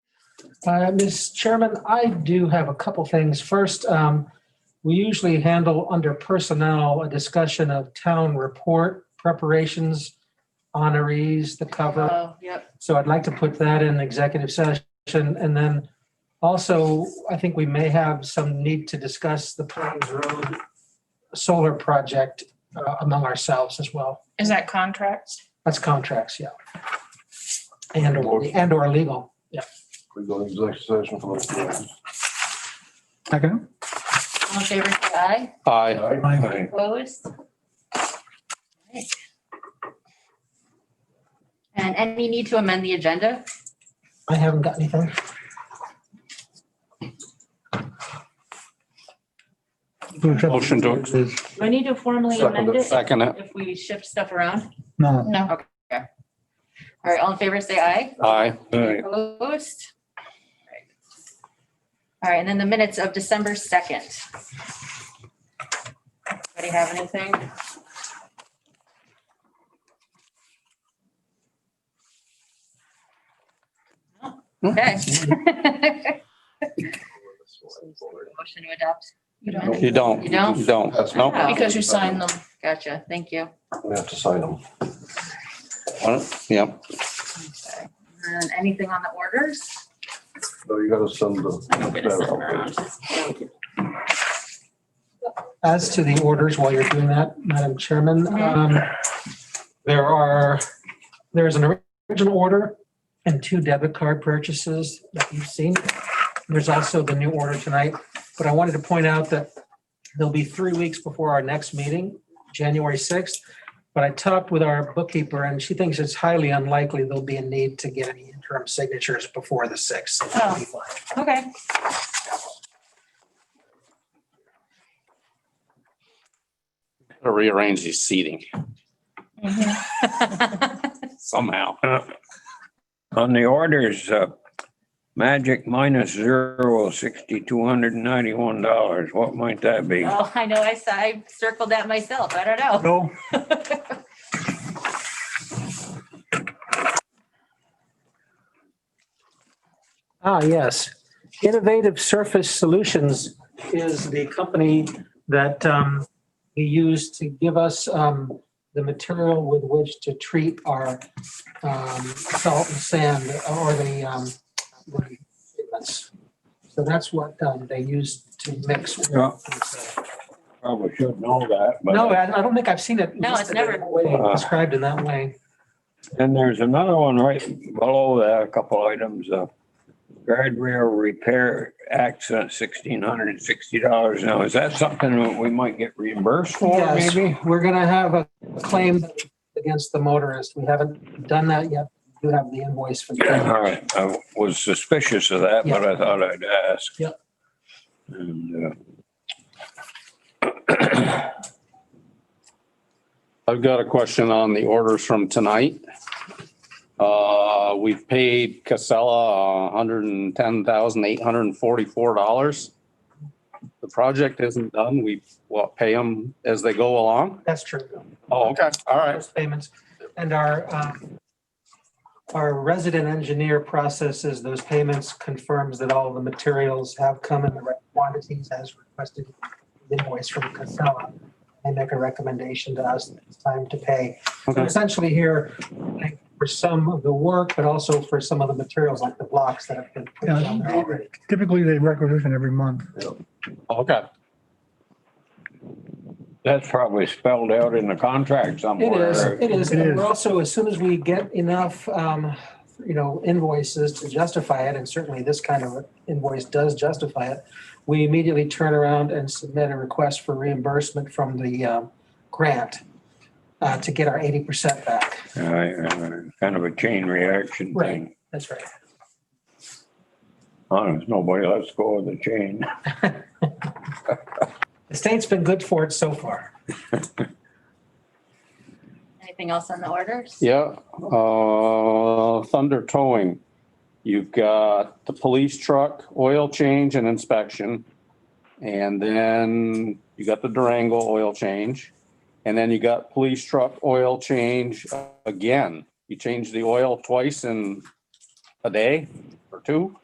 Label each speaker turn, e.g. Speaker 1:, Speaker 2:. Speaker 1: Uh, Ms. Chairman, I do have a couple things. First, um, we usually handle under personnel a discussion of town report preparations, honorees, the cover.
Speaker 2: Oh, yep.
Speaker 1: So I'd like to put that in executive session. And then also, I think we may have some need to discuss the Pines Road solar project uh, among ourselves as well.
Speaker 2: Is that contracts?
Speaker 1: That's contracts, yeah. And or, and or legal, yeah.
Speaker 3: We go to executive session for those. things.
Speaker 4: Second.
Speaker 2: All in favor, say aye.
Speaker 5: Aye.
Speaker 4: Aye.
Speaker 2: Opposed? Alright. And any need to amend the agenda?
Speaker 1: I haven't got anything.
Speaker 5: Motion to-
Speaker 4: Is-
Speaker 2: Do I need to formally
Speaker 3: Second
Speaker 2: amend
Speaker 3: it.
Speaker 2: it
Speaker 5: Second it.
Speaker 2: if we shift stuff around?
Speaker 4: No.
Speaker 2: No. All right, all in favor, say aye.
Speaker 5: Aye.
Speaker 2: Opposed? All right. All right, and then the minutes of December 2nd. Anybody have anything? No? Okay. Motion to adopt. You don't?
Speaker 5: You don't.
Speaker 2: You don't?
Speaker 5: You don't.
Speaker 3: That's-
Speaker 5: No.
Speaker 2: Wow.
Speaker 6: Because you signed them.
Speaker 2: Um, Gotcha, thank you.
Speaker 3: We have to sign them.
Speaker 5: Yep.
Speaker 2: Okay. And anything on the orders?
Speaker 3: No, you gotta send the.
Speaker 2: I'm gonna send them around.
Speaker 1: As to the orders, while you're doing that, Madam Chairman,
Speaker 2: Mhm.
Speaker 1: um, there are, there is an original order and two debit card purchases that you've seen. There's also the new order tonight, but I wanted to point out that there'll be three weeks before our next meeting, January 6th. But I talked with our bookkeeper and she thinks it's highly unlikely there'll be a need to get any interim signatures before the 6th.
Speaker 2: Oh. Okay.
Speaker 5: Gotta Rearrange these seating somehow.
Speaker 7: On the orders, uh, magic minus zero, sixty-two hundred and ninety-one dollars. What might that be?
Speaker 2: Oh, I know, I saw, I circled that myself, I don't know.
Speaker 4: No.
Speaker 1: Ah, yes. Innovative Surface Solutions is the company that um, we use to give us um, the material with which to treat our um, salt and sand or the um, the pigments. So that's what um, they use to mix.
Speaker 7: Yeah. Probably should know that,
Speaker 1: No,
Speaker 7: but,
Speaker 1: I I don't think I've seen it.
Speaker 2: No, it's
Speaker 1: listed
Speaker 2: never-
Speaker 1: in that way, Described in that way.
Speaker 7: and there's another one right below that, a couple items, uh, guardrail repair accident, sixteen hundred and sixty dollars. Now, is that something that we might get reimbursed for
Speaker 1: Yes,
Speaker 7: maybe?
Speaker 1: We're going to have a claim against the motorist. We haven't done that yet. You have the invoice for that.
Speaker 7: All right, I was suspicious of that, but I thought I'd ask.
Speaker 1: Yep.
Speaker 7: And, uh,
Speaker 5: I've got a question on the orders from tonight. Uh, we've paid Casella hundred and ten thousand eight hundred and forty-four dollars. The project isn't done. We, well, pay them as they go along.
Speaker 1: That's true.
Speaker 5: Oh, okay. All right.
Speaker 1: Those payments. And our, um, our resident engineer processes those payments, confirms that all the materials have come in the right quantities as requested invoice from Casella. They make a recommendation to us that it's time to pay. So
Speaker 5: Okay.
Speaker 1: Essentially here, like, for some of the work, but also for some of the materials like the blocks that have been put down there already.
Speaker 4: Typically, they requisition every month.
Speaker 5: Okay.
Speaker 7: That's probably spelled out in the contract
Speaker 1: It
Speaker 7: somewhere.
Speaker 1: is, it is.
Speaker 4: It
Speaker 1: And
Speaker 4: is.
Speaker 1: we're also, as soon as we get enough, um, you know, invoices to justify it, and certainly this kind of invoice does justify it, we immediately turn around and submit a request for reimbursement from the um, grant uh, to get our 80% back.
Speaker 7: Uh, Kind of a chain reaction
Speaker 1: Right.
Speaker 7: thing.
Speaker 1: That's right.
Speaker 7: Honest, nobody lets go of the chain.
Speaker 1: The state's been good for it so far.
Speaker 2: Anything else on the orders?
Speaker 5: Yeah, uh, Thunder Towing. You've got the police truck, oil change and inspection. And then you got the Durango oil change. And then you got police truck, oil change again. You change the oil twice in a day or two.